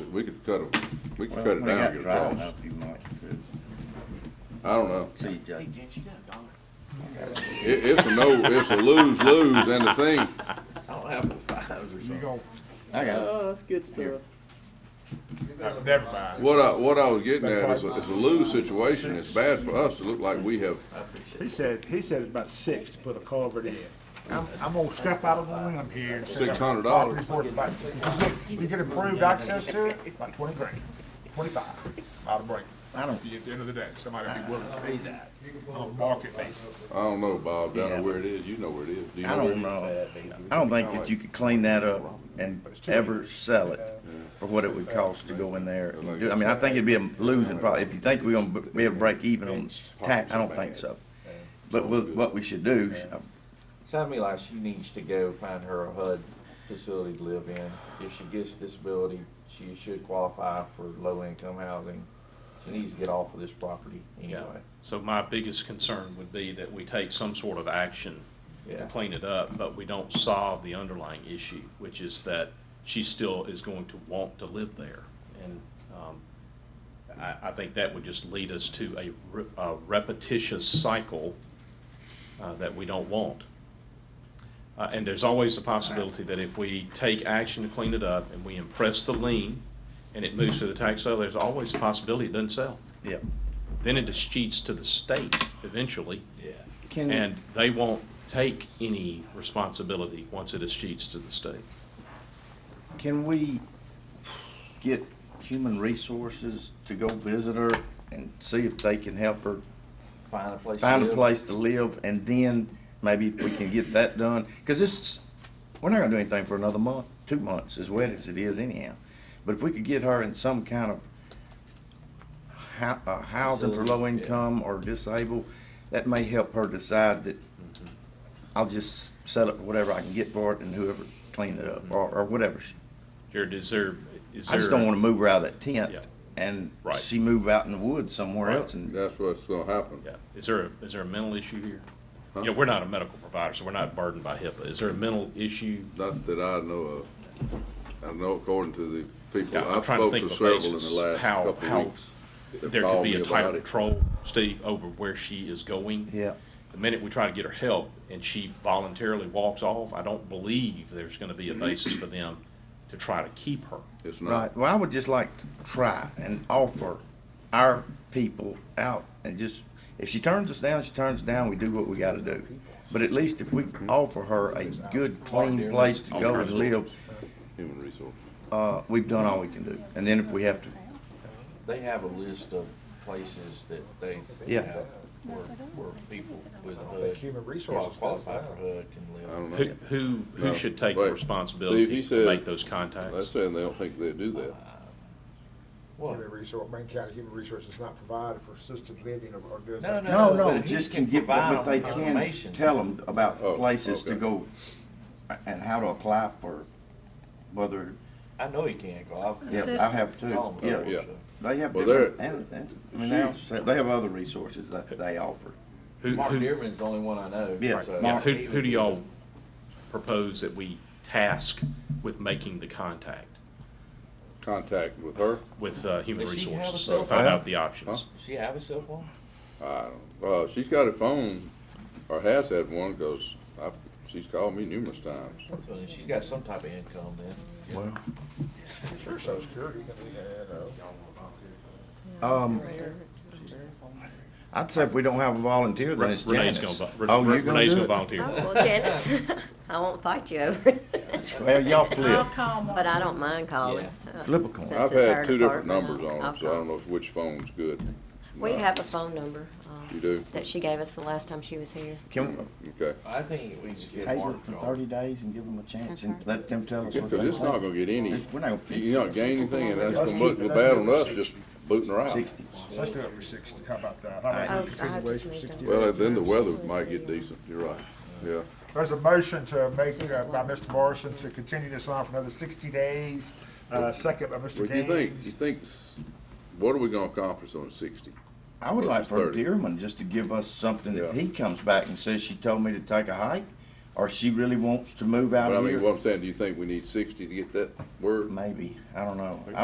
it, we could cut them, we could Well, cut it when they down got and get dry across. enough, you might could I don't know. see Hey, Judge. Jen, you got a dollar? It, it's a no, it's a lose, lose and the thing. I don't have no fives or You something. go, I got it. Oh, that's good stuff. that's never mind. What I, what I was getting at is, a- it's a lose situation. It's bad for us to look like we have, I appreciate He said, he said it's about six to put a culvert in. I'm, I'm gonna step out of the limb here. and say that $600. property's worth about- You get improved access to it, about twenty grand, twenty-five, out of break. I don't, At the end of the day, somebody will be willing to pay that on a market basis. I don't know, Bob, down there where it is. You know where it is. Do you I know? don't know. I don't think that you could clean that up and ever sell it for what it would cost to go in there. and do- I mean, I think it'd be a losing probably. If you think we're gonna be able to break even on tax, I don't think so. But with, what we should do, uh, Sound to me like she needs to go find her a HUD facility to live in. If she gets disability, she should qualify for low-income housing. She needs to get off of this property anyway. So my biggest concern would be that we take some sort of action Yeah. to clean it up, but we don't solve the underlying issue, which is that she still is going to want to live there. And um, I, I think that would just lead us to a re- a repetitious cycle uh, that we don't want. Uh, And there's always the possibility that if we take action to clean it up and we impress the lien and it moves to the tax sale, there's always the possibility it doesn't sell yeah. then it cheats to the state eventually, Yeah. and they won't take any responsibility once it cheats to the state. Can we get human resources to go visit her and see if they can help her Find a place to find a live. place to live, and then maybe if we can get that done, because this, we're not gonna do anything for another month, two months, as wet as it is anyhow. But if we could get her in some kind of hou- uh, housing for low Facility, yeah. income or disabled, that may help her decide that Mm-hmm. I'll just settle for whatever I can get for it and whoever clean it up, or, or whatever. she- Jared, Mm-hmm. is there, is there? I just don't wanna move her out of that tent, Yeah. and Right. she move out in the woods somewhere Right. else and uh, That's what's gonna happen. Yeah, is there, a- is there a mental issue here? You know, we're not a medical provider, so we're not burdened by HIPAA. Is there a mental issue? Not that I know of. I know according to the people, Yeah, I'm I've trying to spoke think to of several in basis, the last how- couple how of weeks. that There could called be me a about tighter it. control, Steve, over where she is going. Yeah. The minute we try to get her help and she voluntarily walks off, I don't believe there's gonna be a basis for them to try to keep her. It's Right. not, Well, I would just like to try and offer our people out and just, if she turns us down, she turns us down, we do what we gotta do. But at least if we offer her a good, clean place to go and live, human resource. uh, we've done all we can do. And then if we have to, They have a list of places that they Yeah. have where, where people with a HUD. Human resources does Qualify for that. HUD can I live. don't Who, know. who, No, who should take wait. Steve, the he responsibility said- to make those They're contacts? saying they don't think they'd do that. Well, Human resource, Main County Human Resources is not provided for assisted living or, or doing No, something. no, but no, he just can can give, them- but provide they them can information. tell them about Oh, places to okay. go and how to apply for, whether, I know he can't go. I've. yeah, I have Call too. him Yeah, Oh, before, yeah. so. they have Well, different, they're- and, and, I mean, they also- they have other resources that they offer. Who, Mark who, Dearman's the only one I know. Yeah, so- yeah, Mark. who, who do y'all propose that we task with making the contact Contact with her? with, uh, human Does she have a resources? cell to Find phone? out the options. Does she have a cell phone? I don't, uh, she's got a phone, or has had one, cause I've, she's called me numerous times. So then she's got some type of income then. Well, Sure, social security, yeah, you know. um, I'd say if we don't have a volunteer, then Re- it's Renee's Janice. gonna, vo- Re- Oh, you're gonna Renee's do it? gonna volunteer. Oh, well, Janice, I won't fight you over it, Well, y'all flip, I'll call but I don't mind calling. uh, flip a coin. since I've it's had our two different department, numbers on I'll them, so I call. don't know if which phone's good. We No. have a phone number uh, You do? that she gave us the last time she was here. Can we Okay. I think we should get pay her Mark for to call. thirty days and give them a chance and That's let them tell us It's, what 'cause they it's not want? gonna get any, We're not gonna you're not gaining anything, and that's Let's gonna look keep it. bad on us, just booting her out. Sixty. Let's do it for sixty, how about that? All right. How Oh, about we I continue ways just for moved on. 60 Well, then the weather might get decent, you're right, yeah. There's a motion to make, uh, by Mr. Morrison, to continue this on for another sixty days, uh, second by Mr. Well, you think, you Gaines. think, s- what are we gonna accomplish on sixty? I would like for 30. Dearman just to give us something that Yeah. he comes back and says she told me to take a hike, or she really wants to move out But I of mean, here. what I'm saying, do you think we need sixty to get that word? Maybe, I don't know.